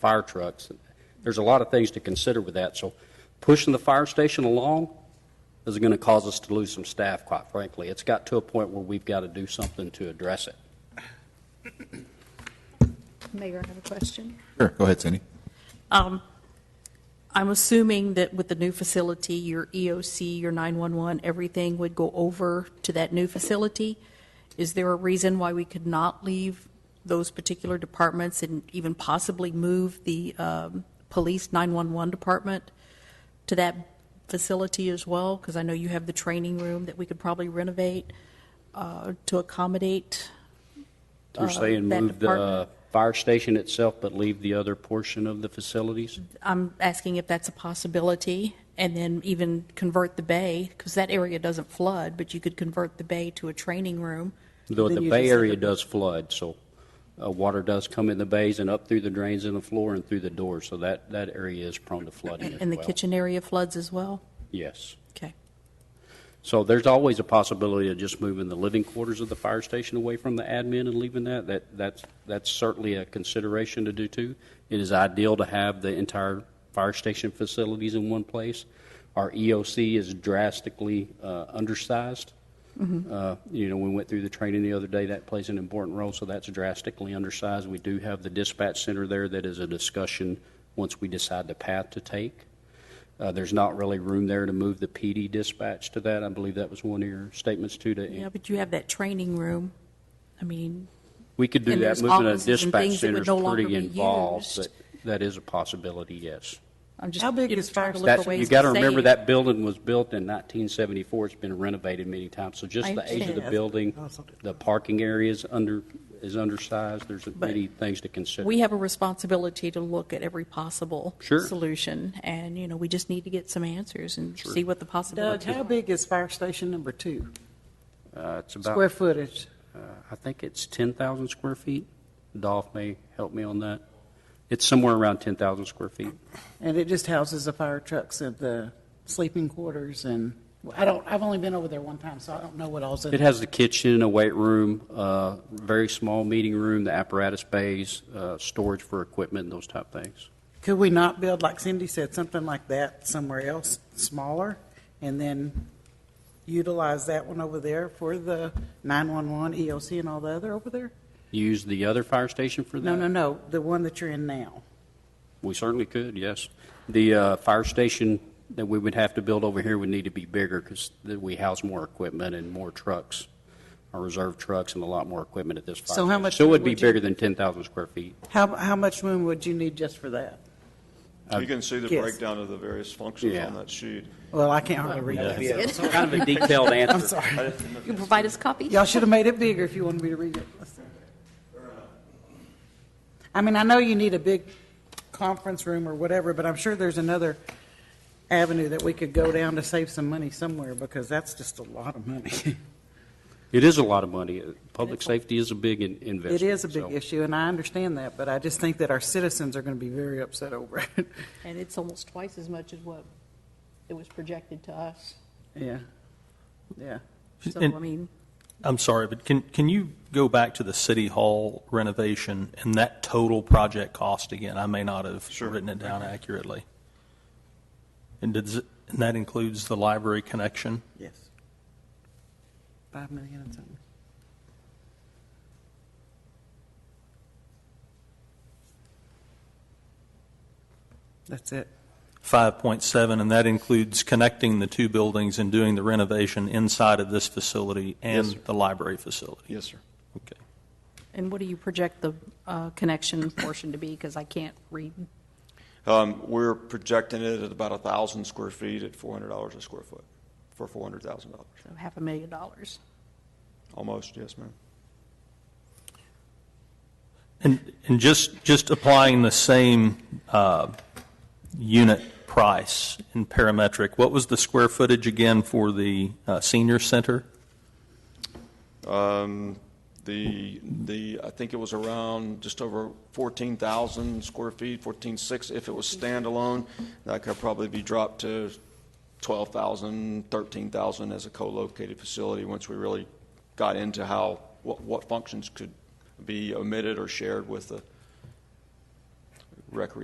fire trucks. There's a lot of things to consider with that, so pushing the fire station along is going to cause us to lose some staff, quite frankly. It's got to a point where we've got to do something to address it. Mayor, I have a question. Sure, go ahead, Cindy. I'm assuming that with the new facility, your EOC, your 911, everything would go over to that new facility. Is there a reason why we could not leave those particular departments and even possibly move the um, police 911 department to that facility as well? Because I know you have the training room that we could probably renovate uh, to accommodate. You're saying Uh, that move the department. fire station itself, but leave the other portion of the facilities? I'm asking if that's a possibility, and then even convert the bay, because that area doesn't flood, but you could convert the bay to a training room. Though Then the you Bay just- Area does flood, so uh, water does come in the bays and up through the drains in the floor and through the doors, so that, that area is prone to flooding as well. And the kitchen area floods as well? Yes. Okay. So there's always a possibility of just moving the living quarters of the fire station away from the admin and leaving that. That, that's, that's certainly a consideration to do too. It is ideal to have the entire fire station facilities in one place. Our EOC is drastically uh, undersized. Uh, You know, we went through the training the other day, that plays an important role, so that's drastically undersized. We do have the dispatch center there that is a discussion once we decide the path to take. Uh, There's not really room there to move the PD dispatch to that. I believe that was one of your statements too, Yeah, to, but you have that training room. I mean, we could do And that. there's Moving a offices and dispatch things that would center is no longer pretty be involved, but used. that is a possibility, yes. I'm just. How big you know, is trying to fire look for That's, you ways got to save. remember that building was built in 1974. It's been renovated many times, so just I the age of the understand. building, the parking area is under, is undersized. There's many things to consider. We have a responsibility to look at every possible. Sure. Solution, and, you know, we just need to get some answers and see what the Doug, possibilities. how big is fire station number two? Uh, It's Square about, footage? uh, I think it's 10,000 square feet. Dolph may help me on that. It's somewhere around 10,000 square feet. And it just houses the fire trucks and the sleeping quarters and, I don't, I've only been over there one time, so I don't know what all's in It it. has the kitchen, a weight room, uh, very small meeting room, the apparatus bays, uh, storage for equipment, and those type things. Could we not build, like Cindy said, something like that somewhere else, smaller, and then utilize that one over there for the 911, EOC, E and all the other over there? Use the other fire station for that? No, no, no, the one that you're in now. We certainly could, yes. The uh, fire station that we would have to build over here would need to be bigger because we house more equipment and more trucks, our reserve trucks and a lot more equipment at this fire So how station. much So it would be would you- bigger than 10,000 square feet. How, how much room would you need just for that? You can see the Yes. breakdown of the various functions Yeah. on that sheet. Well, I can't hardly read that. Kind of a detailed answer. I'm sorry. You provide us copies? Y'all should have made it bigger if you wanted me to read it. I mean, I know you need a big conference room or whatever, but I'm sure there's another avenue that we could go down to save some money somewhere, because that's just a lot of money. It is a lot of money. Uh, Public safety is a big in- investment. It is a big so- issue, and I understand that, but I just think that our citizens are going to be very upset over it. And it's almost twice as much as what it was projected to us. Yeah, yeah. So, I And- mean, I'm sorry, but can, can you go back to the city hall renovation and that total project cost again? I may not have Sure. written it down accurately. And does, it- and that includes the library connection? Yes. Five million and something. That's it. 5.7, and that includes connecting the two buildings and doing the renovation inside of this facility Yes, sir. and the library facility? Yes, sir. Okay. and what do you project the uh, connection portion to be? Because I can't read. Um, we're projecting it at about a thousand square feet at four hundred dollars a square foot, for four hundred thousand dollars, So half a million dollars. almost, yes, ma'am. And, and just, just applying the same uh, unit price in parametric, what was the square footage again for the uh, senior center? Um, the, the, I think it was around just over fourteen thousand square feet, fourteen-six, if it was standalone. That could probably be dropped to twelve thousand, thirteen thousand as a co-located facility, once we really got into how, what, what functions could be omitted or shared with the recreation